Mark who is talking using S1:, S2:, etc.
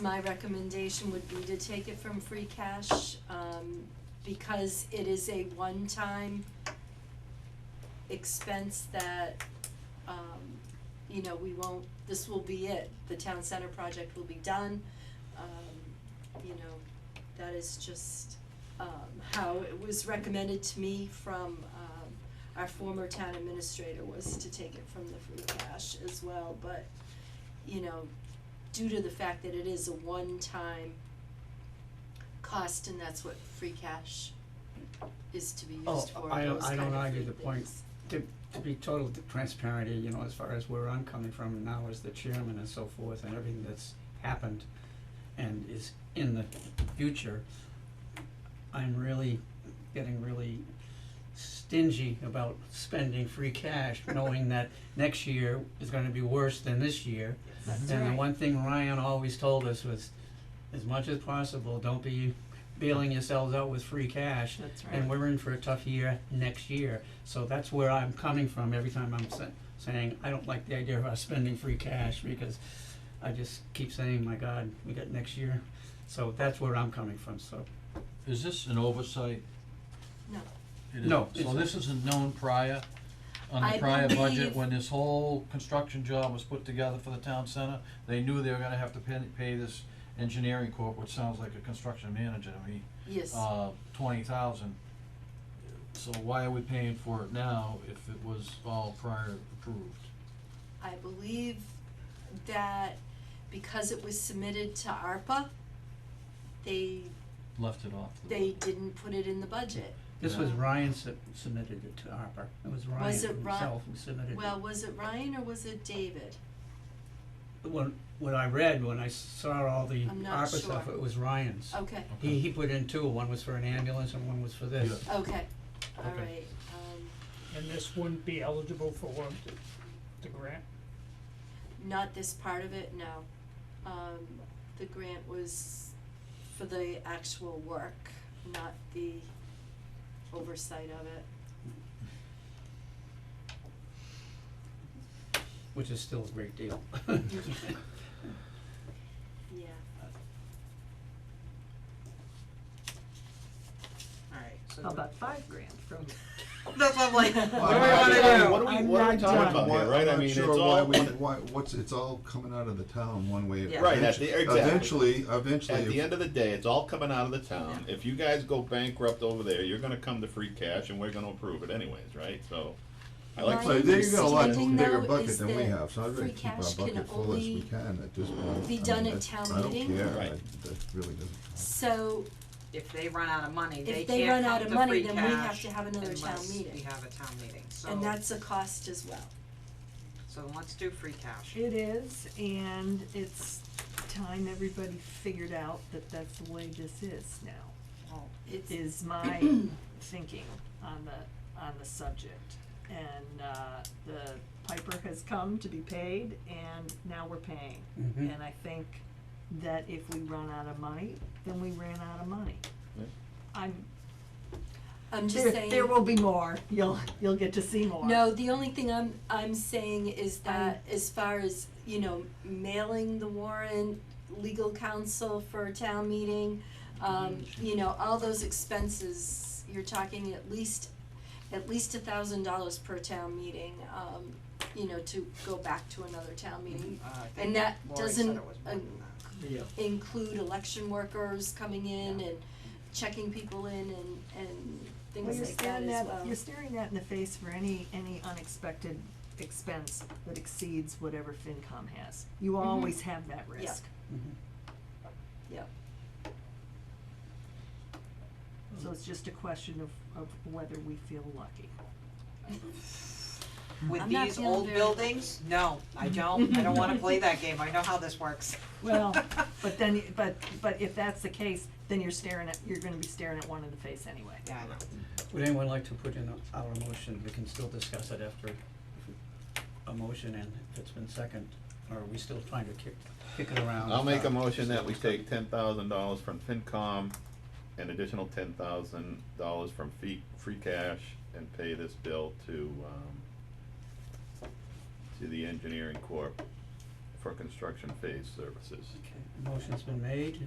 S1: My recommendation would be to take it from free cash, um, because it is a one-time expense that, um, you know, we won't, this will be it. The town center project will be done, um, you know, that is just, um, how it was recommended to me from, um, our former town administrator was to take it from the free cash as well, but, you know, due to the fact that it is a one-time cost and that's what free cash is to be
S2: Oh,
S1: used for,
S2: I don't-
S1: those
S2: I
S1: kind
S2: don't
S1: of
S2: argue the
S1: things.
S2: point. To, to be total transparent, you know, as far as where I'm coming from now as the chairman and so forth and everything that's happened and is in the future, I'm really getting really stingy about spending free cash, knowing that next year is gonna be worse than this year.
S1: That's
S2: And the
S1: right.
S2: one thing Ryan always told us was, as much as possible, don't be bailing yourselves out with free cash.
S3: That's right.
S2: And we're in for a tough year next year, so that's where I'm coming from every time I'm sa- saying, I don't like the idea of us spending free cash, because I just keep saying, my God, we got next year, so that's where I'm coming from, so.
S4: Is this an oversight?
S1: No.
S4: It is-
S2: No, it's
S4: So this isn't known prior, on
S1: I
S4: the prior
S1: believe-
S4: budget, when this whole construction job was put together for the town center, they knew they were gonna have to pay, pay this engineering corp, which sounds like a construction manager to me,
S1: Yes,
S4: uh, twenty thousand. So why are we paying for it now if it was all prior approved?
S1: I believe that because it was submitted to ARPA, they,
S4: Left it off the.
S1: they didn't put it in the budget.
S2: This was
S1: Yeah.
S2: Ryan sub- submitted it to ARPA, it was Ryan
S1: Was it Ri-
S2: himself who submitted it.
S1: Well, was it Ryan or was it David?
S2: When, when I read, when I saw all the
S1: I'm not
S2: ARPA stuff,
S1: sure.
S2: it was Ryan's.
S1: Okay,
S2: He, he put in two, one was for an ambulance and one was for this.
S4: Yeah.
S1: okay, all
S4: Okay.
S1: right, um,
S3: And this wouldn't be eligible for one, the, the grant?
S1: not this part of it, no. Um, the grant was for the actual work, not the oversight of it.
S2: Which is still a great deal.
S1: Mm-hmm. Yeah,
S5: Alright, so.
S6: How about five grand from?
S5: That's what I'm like, what do we
S7: Well,
S5: wanna do?
S7: What are we, what are we
S6: I'm
S7: talking
S6: not
S7: about here,
S8: Why-
S7: right? I
S8: I'm
S7: mean, it's
S8: not sure why
S7: all.
S8: we-
S7: one-
S8: Why, what's, it's all coming out of the town one way.
S5: Yeah.
S8: or
S7: Right,
S8: another.
S7: at the- exactly.
S8: Eventually, eventually.
S7: At the
S8: if-
S7: end of the day, it's all coming out of the town. If you guys go bankrupt over there, you're gonna come to free cash and we're gonna approve it anyways, right? So. I like.
S1: Right.
S8: So they've got a lot
S1: Understanding,
S8: bigger
S1: though, is
S8: bucket than we
S1: that
S8: have, so I'd rather
S1: free
S8: keep our
S1: cash can
S8: bucket full as we
S1: only
S8: can at this point.
S1: be
S8: I
S1: done
S8: mean,
S1: at
S8: that-
S1: town meeting.
S8: I don't care, I,
S7: Right.
S8: that really doesn't.
S1: so
S5: If they run out of money, they
S1: If they
S5: can't
S1: run out of
S5: come to
S1: money,
S5: free
S1: then we have
S5: cash
S1: to have another town
S5: unless
S1: meeting.
S5: we have a town meeting, so.
S6: Oh.
S1: And that's a cost as well.
S5: So then let's do free cash.
S6: It is, and it's time everybody figured out that that's the way this is now,
S5: Well,
S1: It's,
S6: is my thinking on the, on the subject. And, uh, the Piper has come to be paid, and now we're paying.
S1: Mm-hmm.
S2: Mhm.
S6: And I think that if we run out of money, then we ran out of money.
S7: Yeah.
S6: I'm,
S1: I'm just
S6: there,
S1: saying.
S6: there will be more, you'll, you'll get to see more.
S1: No, the only thing I'm, I'm saying is that as far as, you know, mailing the warrant, legal counsel for a town meeting, um, you know, all those expenses, you're talking at least, at least a thousand dollars per town meeting, um, you know, to go back to another town meeting.
S5: uh, I think
S1: And that
S5: Lori said
S1: doesn't,
S5: it was more
S1: uh,
S5: than that.
S2: Yeah.
S1: include election workers coming in and checking people in and, and
S6: Well,
S1: things
S6: you're
S1: like that
S6: staring
S1: as well.
S6: that, you're staring that in the face for any, any unexpected expense that exceeds whatever FinCom has. You always have that
S1: Mm-hmm. Yeah.
S6: risk.
S2: Mhm.
S1: Yep.
S6: So it's just a question of, of whether we feel lucky.
S5: With
S1: I'm not
S5: these
S1: feeling
S5: old
S1: very-
S5: buildings, no, I don't, I don't wanna play that game, I know how this works.
S6: Well, but then, but, but if that's the case, then you're staring at, you're gonna be staring at one in the face anyway.
S5: Yeah, I know.
S2: Would anyone like to put in a- our motion, we can still discuss it after a motion and if it's been second, or are we still trying to kick, kick it around?
S7: I'll make a
S2: Uh,
S7: motion that we take ten thousand dollars from FinCom, an additional ten thousand dollars from fee, free cash, and pay this bill to, um, to the engineering corp for construction phase services.
S2: Okay, motion's been made,